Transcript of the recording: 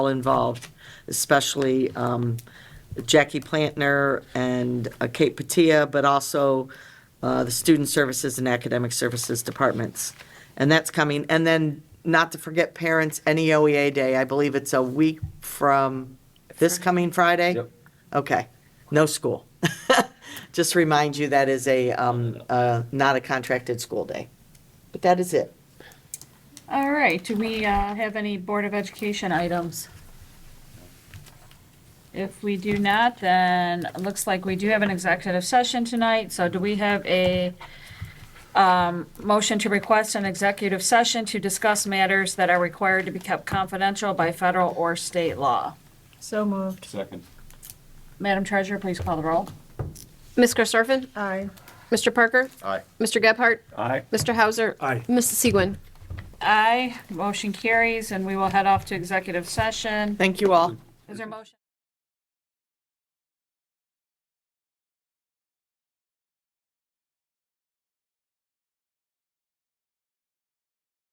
all involved, especially um, Jackie Plantner and uh, Kate Patia, but also uh, the Student Services and Academic Services Departments. And that's coming. And then, not to forget parents, NEOEA Day, I believe it's a week from this coming Friday? Yep. Okay, no school. Just remind you, that is a, um, uh, not a contracted school day. But that is it. All right, do we uh, have any Board of Education items? If we do not, then it looks like we do have an executive session tonight, so do we have a um, motion to request an executive session to discuss matters that are required to be kept confidential by federal or state law? So moved. Second. Madam Treasurer, please call the roll. Ms. Karstoffen? Aye. Mr. Parker? Aye. Mr. Gebhardt? Aye. Mr. Hauser? Aye. Mrs. Segwin? Aye, motion carries, and we will head off to executive session. Thank you all. Is there a motion?